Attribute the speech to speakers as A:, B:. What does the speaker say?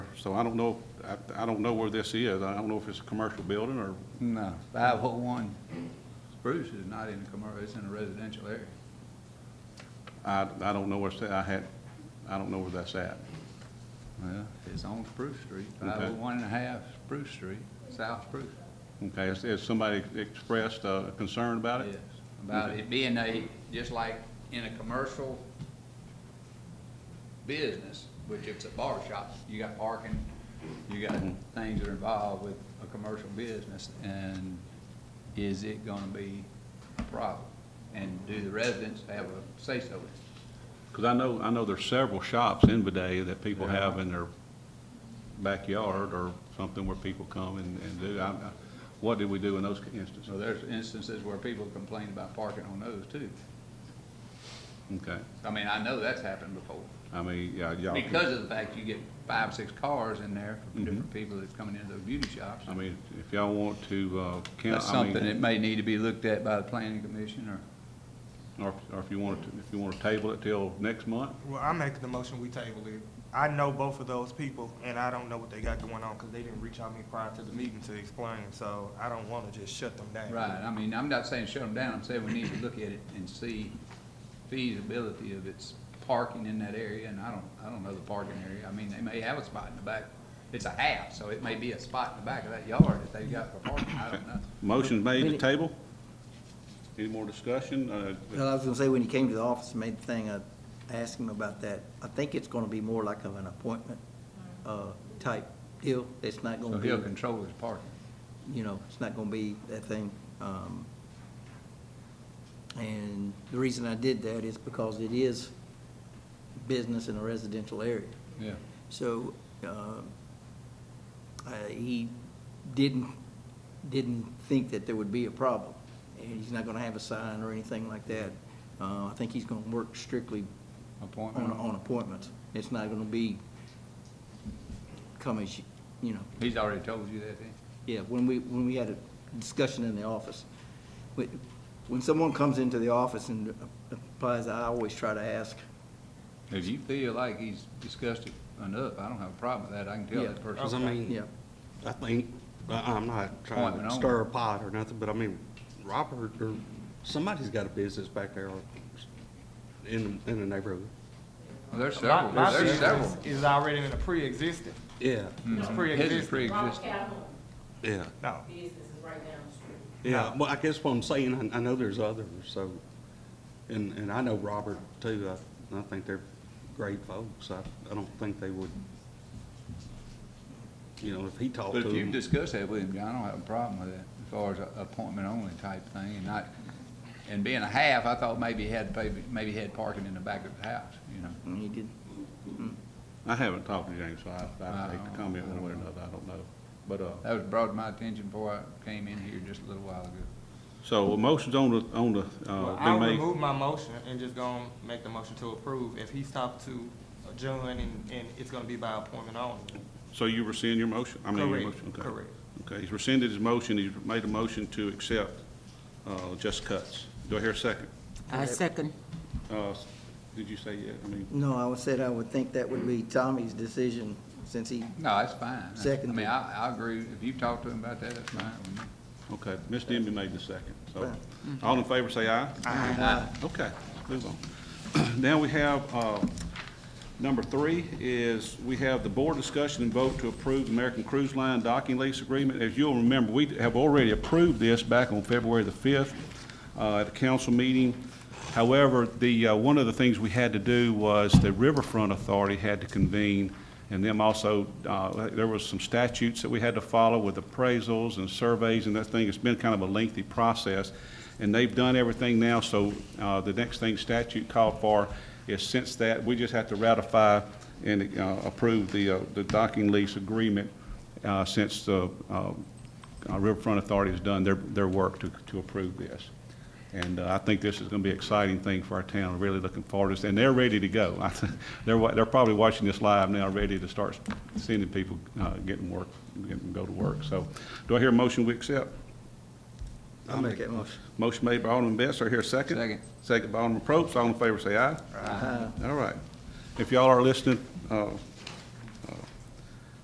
A: So I don't know, I, I don't know where this is. I don't know if it's a commercial building or,
B: No, five oh one Spruce is not in a commercial, it's in a residential area.
A: I, I don't know where it's, at. I had, I don't know where that's at.
B: Well, it's on Spruce Street,
A: Okay.
B: five oh one and a half Spruce Street, South Spruce.
A: Okay, has, has somebody expressed a concern about
B: Yes,
A: it?
B: about it being a, just like in a commercial business, which it's a bar shop, you got parking, you
A: Mm-hmm.
B: got things that are involved with a commercial business, and is it gonna be a problem? And do the residents have a say-so? in it?
A: Because I know, I know there's several shops in Vidalia that people
B: Yeah.
A: have in their backyard or something where people come and, and do. I- I- What did we do in those
B: So
A: instances?
B: there's instances where people complain about parking on those too.
A: Okay,
B: I mean, I know that's happened before.
A: I mean, yeah, y'all. can-
B: Because of the fact you get five, six cars in there from
A: Mhm.
B: different people that's coming into those beauty shops.
A: I mean, if y'all want to, uh, count.
B: That's
A: I mean-
B: something that may need to be looked at by the planning commission or,
A: Or, if- or if you want to, if you want to table it till next month,
C: Well, I'm making the motion we table it. I know both of those people, and I don't know what they got going on, because they didn't reach out to me prior to the meeting to explain, so I don't want to just shut them down.
B: right, I mean, I'm not saying shut them down, I'm saying we need to look at it and see feasibility of its parking in that area, and I don't, I don't know the parking area, I mean, they may have a spot in the back. It's a half, so it may be a spot in the back of that yard that they've got for parking, I don't know.
A: motion made to table? Any more discussion? Uh,
D: Well, I was gonna say, when he came to the office and made the thing, I asked him about that. I think it's gonna be more like of an appointment, uh, type deal. It's not
B: So
D: gonna be,
B: he'll control his parking.
D: you know, it's not gonna be that thing. Um, and the reason I did that is because it is business in a residential area.
B: Yeah.
D: So, um, uh, he didn't, didn't think that there would be a problem, and he's not gonna have a sign or anything like that. Uh, I think he's gonna work strictly on,
B: Appointment.
D: on appointments. It's not gonna be come as, you- you know,
B: He's already told you that, then?
D: yeah, when we, when we had a discussion in the office, when, when someone comes into the office and applies, I always try to ask,
B: If you feel like he's discussed it enough, I don't have a problem with that, I can tell
D: Yeah.
B: that person.
E: Because I mean,
D: yeah,
E: I think, I- I'm not trying
B: Appointment
E: to
B: only.
E: stir a pot or nothing, but I mean, Robert, or somebody's got a business back there in, in the neighborhood.
B: Well, There's
C: My,
B: several,
C: my
B: there's several.
C: business is already in a pre-existing.
E: Yeah,
C: It's
B: Mm. His is
C: pre-existing.
F: Robert
B: pre-existing.
F: Calhoun
E: yeah,
C: No,
F: business is right down the street.
E: yeah. Well, I guess what I'm saying, I, I know there's others, so, and, and I know Robert too. I, I think they're great folks. I, I don't think they would, you know, if he talked
B: But
E: to
B: if you
E: them.
B: discuss that with him, John, I don't have a problem with that, as far as a- appointment only type thing, and not, and being a half, I thought maybe he had, maybe, maybe he had parking in the back of the house, you know?
D: and he did,
A: I haven't talked to James, so I, I
B: I
A: hate
B: don't-
A: to comment
B: I
A: one
B: don't
A: way or
B: know.
A: another, I don't know. But, uh,
B: That was brought to my attention before I came in here just a little while ago.
A: so a motion's on the, on the,
C: Well,
A: uh,
C: I'll
A: been made.
C: remove my motion and just go and make the motion to approve. If he's talked to John and, and it's gonna be by appointment only.
A: So you rescind your motion? I mean, your
C: Correct,
A: motion, okay.
C: correct.
A: Okay, he's rescinded his motion, he's made a motion to accept, uh, Just Cuts. Do I hear a second?
G: I second.
A: Uh, s- did you say, yeah, I mean,
D: No, I would said I would think that would be Tommy's decision, since he,
B: No, that's fine. I
D: Second.
B: mean, I, I agree, if you talk to him about that, that's fine with me.
A: okay, Ms. Denby made the second, so,
D: Right.
A: all in favor, say aye.
D: uh,
A: Okay, move on. Now we have, uh, number three is, we have the board discussion and vote to approve the American Cruise Line docking lease agreement. As you'll remember, we have already approved this back on February the 5th uh, at a council meeting. However, the, uh, one of the things we had to do was the Riverfront Authority had to convene, and them also, uh, there was some statutes that we had to follow with appraisals and surveys and that thing. It's been kind of a lengthy process. And they've done everything now, so uh, the next thing statute called for is since that, we just have to ratify and uh, approve the uh, the docking lease agreement uh, since the uh, uh, Riverfront Authority has done their their work to to approve this. And uh, I think this is going to be an exciting thing for our town, really looking forward to this. And they're ready to go. I think They're wa- they're probably watching this live now, ready to start sending people uh, getting work, getting go to work. So do I hear a motion we accept?
D: I'll make that motion.
A: Motion made by Alderman Best, do I hear a second?
B: Second.
A: Second by Alderman Probst, all in favor say aye. Aye. All right. If y'all are listening, uh,